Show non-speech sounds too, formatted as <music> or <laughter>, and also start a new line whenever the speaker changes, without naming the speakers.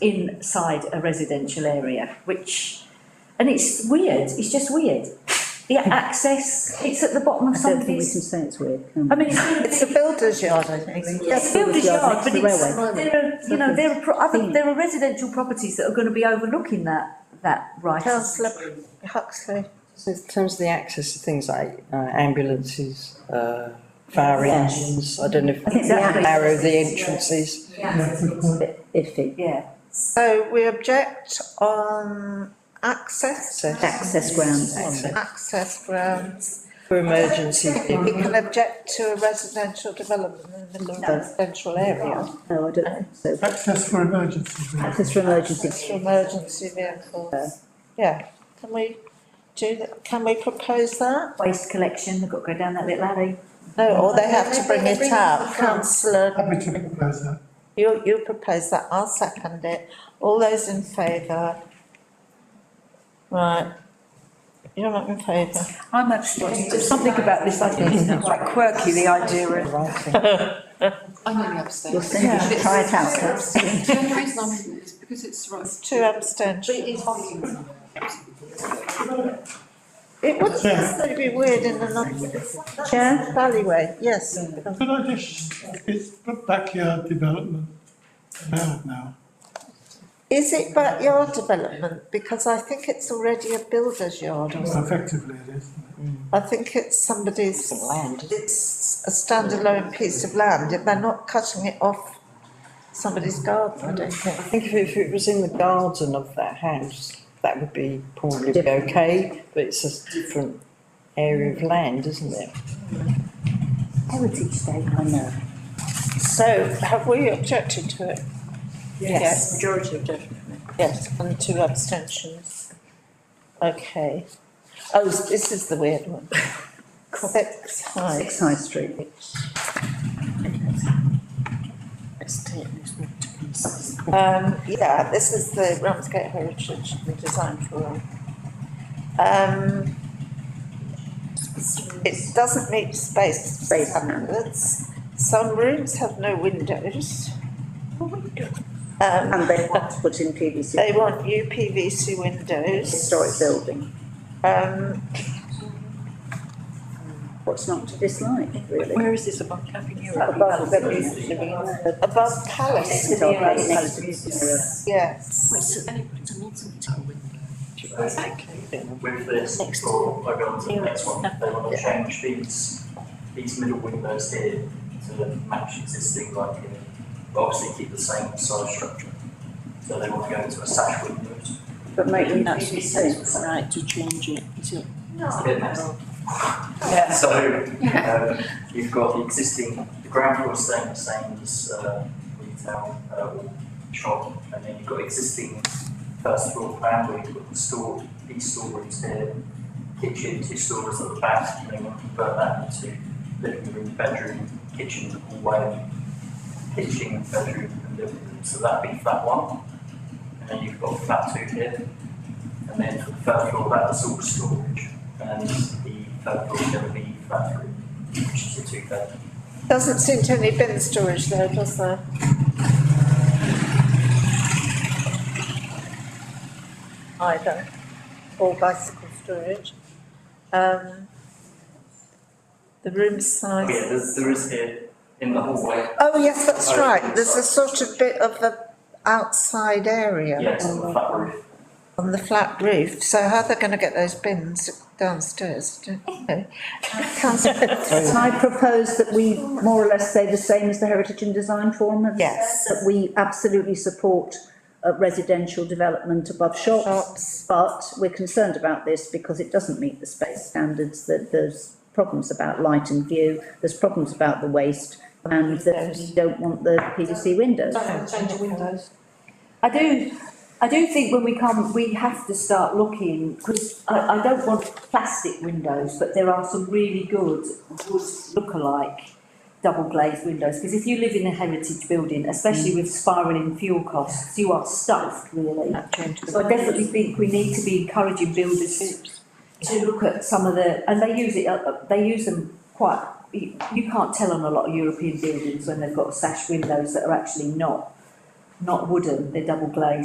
inside a residential area, which, and it's weird, it's just weird.
<laughs>
The access, it's at the bottom of
I don't think we
somebody's,
can say it's weird, can
I
we?
mean, it's really-
It's a builder's yard, I think.
It's builder's yard, but
next to the
it's,
railway.
there are, you know, there are, pro- I think
Hmm.
there are residential properties that are gonna be overlooking that, that right.
Councillor Huxley.
So in terms of the access to things like uh, ambulances, uh, fire
Yes.
engines, I don't know if
Exactly.
narrow the entrances.
A bit iffy.
Yeah,
So we object on access,
Access,
Access grounds.
access grounds.
for emergency
We
people.
can object to a residential development in the middle of a residential area.
No, I don't think so.
Access for emergencies. really.
Access for
It's for
emergency.
emergency vehicles. Yeah, can we do that? Can we propose that?
waste collection, they've got to go down that little alley.
No, or they have to bring it up. Councillor,
Happy to propose that.
you, you propose that, I'll second it. All those in favour? Right. You're not in favour?
I'm abstaining, there's something about this, I think it's quite quirky, the idea of
Writing.
I'm only upstairs.
You're saying you should try it out, Cass.
The only reason I'm in it is because it's right.
Two abstentions.
It's holding.
It wouldn't necessarily be weird in another
Chair?
alleyway, yes.
Could I just, it's backyard development allowed now.
Is it backyard development? Because I think it's already a builder's yard or something.
Effectively it is. isn't
I think it's somebody's. Land. It's a standalone piece of land, if they're not cutting it off somebody's garden, I don't
I
think.
think if, if it was in the garden of that house, that would be probably be okay, but it's a different area of land, isn't it?
Heritage Day, I know.
So have we objected to it? Yes.
majority of definite.
Yes, and two abstentions. Okay. Oh, this is the weird one. Six High.
Six High Street.
Um, yeah, this is the Ramsgate Heritage and Design Forum. Um, it doesn't meet space standards. Some rooms have no windows.
Oh
Um,
And they want to put in PVC,
they want UPVC windows.
historic building.
Um,
What's not to dislike, really?
Where is this above Cafe
Above the-
above palace,
It's our place, it's-
yes.
With this, or I go on to the next one, they want to change these, these middle windows here to match existing, like, you know, but obviously keep the same size structure. So they want to go into a sash windows.
But make them
That's
PVC.
right, to change it, is it?
It's a bit messy.
Yeah.
So, um, you've got the existing, the ground floor is staying the same as, uh, retail, uh, or shop, and then you've got existing first floor plan where you've got the store, these storerooms here, kitchen, two storers at the back, and then you convert that into living room, bedroom, kitchen, hallway, kitchen, bedroom, and living room, so that'd be flat one. And then you've got flat two here, and then for the third floor, that's all storage and Uh, the third floor is going to be bathroom, which is a two bed.
Doesn't seem to any bin storage though, does there? Either, or bicycle storage. Um, the room
Oh, Yeah,
size.
there, there is here in the hallway,
Oh, yes, that's
Oh,
right, there's a
sorry.
sort of bit of a outside area
yeah, it's on the flat roof.
on the flat roof, so how they're gonna get those bins downstairs, I don't <laughs> know.
<laughs>
Councillor,
Can I propose that we more or less say the same as the Heritage and Design Forum? have
Yes.
said, That we absolutely support uh, residential development above
Shops.
shops. But we're concerned about this because it doesn't meet the space standards, that there's problems about light and view, there's problems about the waste, and that we don't want the PVC windows.
Change of windows.
I do, I do think when we come, we have to start looking, because I, I don't want plastic windows, but there are some really good wood look-alike double glazed windows, because if you live in a heritage building, especially with spiralling fuel costs, you are stuffed really. So I definitely think we need to be encouraging builders to- to look at some of the, and they use it, uh, they use them quite, you, you can't tell on a lot of European buildings when they've got sash windows that are actually not not wooden, they're double glazed.